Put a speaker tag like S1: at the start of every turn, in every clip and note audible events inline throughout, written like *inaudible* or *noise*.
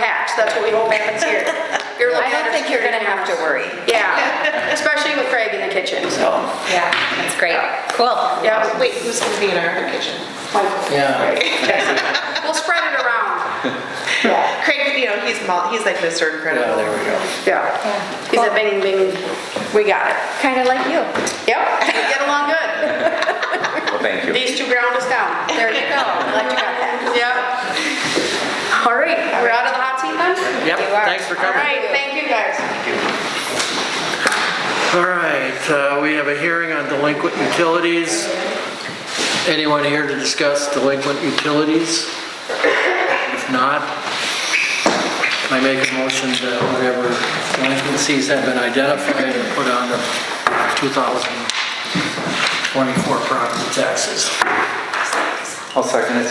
S1: so that's what we hope happens
S2: *laughs*
S1: here. You're looking
S2: I don't
S1: under
S2: think you're gonna
S1: security
S2: have to
S1: cameras.
S2: worry.
S1: Yeah, especially with Craig in the kitchen, so.
S2: Yeah, that's great. Cool.
S1: Yeah,
S3: Wait, who's gonna be in our kitchen?
S4: Yeah.
S1: we'll spread it around.
S3: Craig, you know, he's, mul- he's like Mr.
S4: Yeah,
S3: Incredible.
S4: there we go.
S1: Yeah. He's a bing, bing. We got it.
S2: Kind of like you.
S1: Yep, we get along good.
S5: Well, thank you.
S1: These two ground us down.
S2: There you go. Glad you got that.
S1: Yep. All right, we're out of the hot seat then?
S4: Yep,
S2: You are.
S4: thanks for
S1: All
S4: coming.
S1: right, thank you guys.
S4: All right, uh, we have a hearing on delinquent utilities. Anyone here to discuss delinquent utilities? If not, I make a motion that whatever delinquencies have been identified and put on the 2024 property taxes.
S5: I'll second it.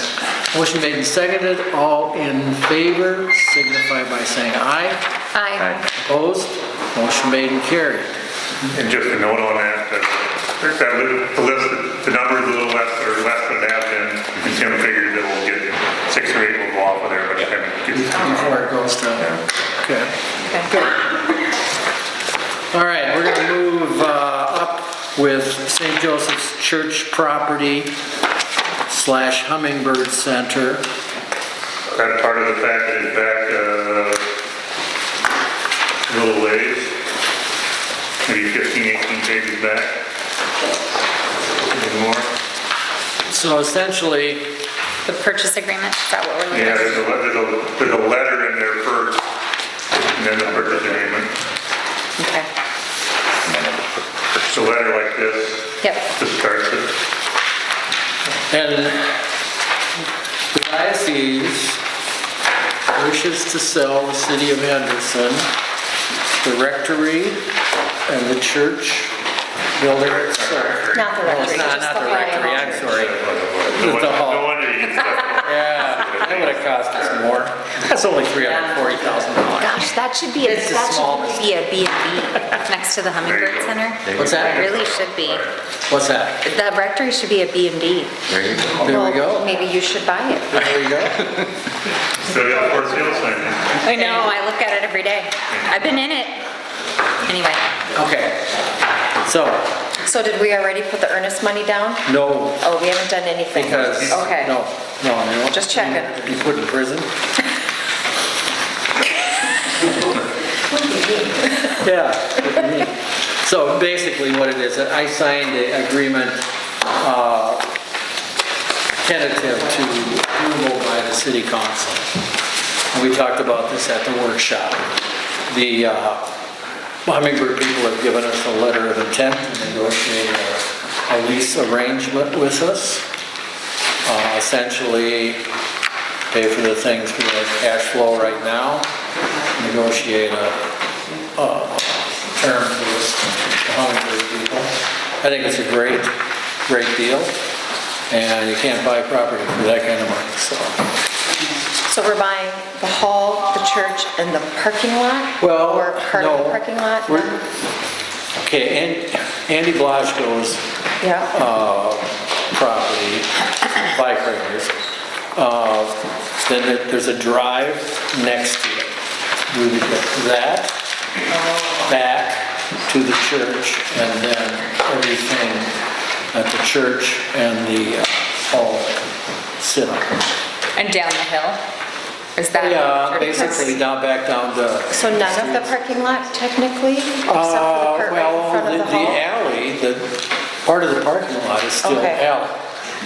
S4: Motion made and seconded, all in favor, signify by saying aye.
S2: Aye.
S4: Opposed, motion made and carried.
S6: And just a note on that, that uh, I think that li- the list, the number's a little less, or less than it has been, and Tim figures that we'll get six or eight will go off of there, but Tim gets.
S4: before it goes to, okay.
S3: Okay.
S4: All right, we're gonna move uh, up with St. Joseph's Church property slash Hummingbird Center.
S6: That's part of the fact that it's back, uh, a little ways, maybe 15, 18 pages back. Maybe more.
S4: So essentially,
S2: The purchase agreement, is that what we're looking
S6: Yeah,
S2: at?
S6: there's a, le- there's a, there's a letter in there first, and then the purchase agreement.
S2: Okay.
S6: It's a letter like this,
S2: Yep.
S6: this starts it.
S4: and the diocese wishes to sell the city of Henderson, the rectory and the church building itself.
S2: Not the
S4: No,
S2: rectory,
S4: it's not-
S2: just
S4: not
S2: the
S4: the
S2: whole
S4: rectory,
S2: hall.
S4: I'm sorry.
S6: No wonder-
S4: hall.
S6: no wonder you stuck
S4: Yeah, that would have cost us more. That's only $340,000.
S2: Gosh, that should be, a-
S4: It's the
S2: that
S4: smallest.
S2: should be a B and B next to the Hummingbird Center.
S4: What's
S2: It
S4: that?
S2: really should be.
S4: What's that?
S2: The rectory should be a B and B.
S5: There you go.
S4: There we go.
S2: Maybe you should buy it.
S4: There we go.
S6: Still got four sales signs.
S2: I know, I look at it every day. I've been in it. Anyway,
S4: Okay, so,
S7: So did we already put the earnest money down?
S4: no,
S7: Oh, we haven't done anything?
S4: because,
S7: Okay.
S4: no, no, no.
S7: Just checking.
S4: Be put in prison?
S7: *laughs*
S4: Yeah. So basically what it is, I signed an agreement, uh, tentative to approval by the city council. And we talked about this at the workshop. The uh, Hummingbird people have given us a letter of intent to negotiate a- a lease arrangement with us. Uh, Essentially, pay for the things for the cash flow right now, negotiate a, a term for this Hummingbird people. I think it's a great, great deal, and you can't buy property for that kind of money, so.
S7: So we're buying the hall, the church, and the parking lot?
S4: Well,
S7: Or part of
S4: no,
S7: the parking lot?
S4: we're- Okay, and Andy Blaschko's
S7: Yeah,
S4: uh, property, bike riders, uh, then there- there's a drive next to it. We would get that back to the church and then everything at the church and the uh, hall sit on.
S2: and down the hill? Is that?
S4: Yeah, basically down, back down to.
S7: so none of the parking lot technically, except for the part right in front of the
S4: Uh, Well, the
S7: hall?
S4: alley, the, part of the parking lot is still
S7: Okay.
S4: alley.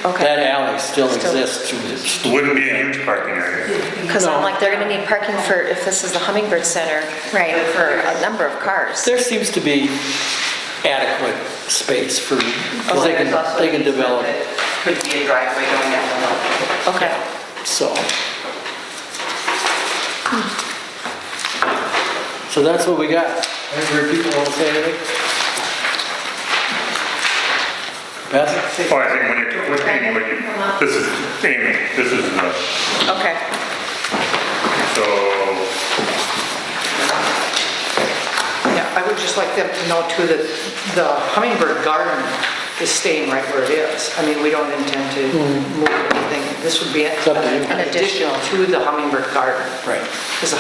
S7: Okay.
S4: That alley still
S7: Still-
S4: exists to this.
S6: Wouldn't be a huge parking area.
S7: Because
S4: no.
S7: I'm like, they're going to need parking for, if this is the Hummingbird Center.
S2: Right.
S7: For a number of cars.
S4: There seems to be adequate space for, because they
S8: There's
S4: can,
S8: also
S4: they can
S8: an easement
S4: develop it,
S8: that Could be a driveway going down the hill.
S7: Okay.
S4: so. So that's what we got. Any people want to say anything? Beth?
S6: Well, Oh, I think when you're, when- anyway, you- this is, anyway, this is, uh,
S7: Okay.
S6: so,
S8: Yeah, I would just like them to know too that the Hummingbird Garden is staying right where it is. I mean, we don't intend to move anything. This would be an
S4: Hmm. up to you.
S8: an additional to the Hummingbird Garden.
S4: Right.
S8: Because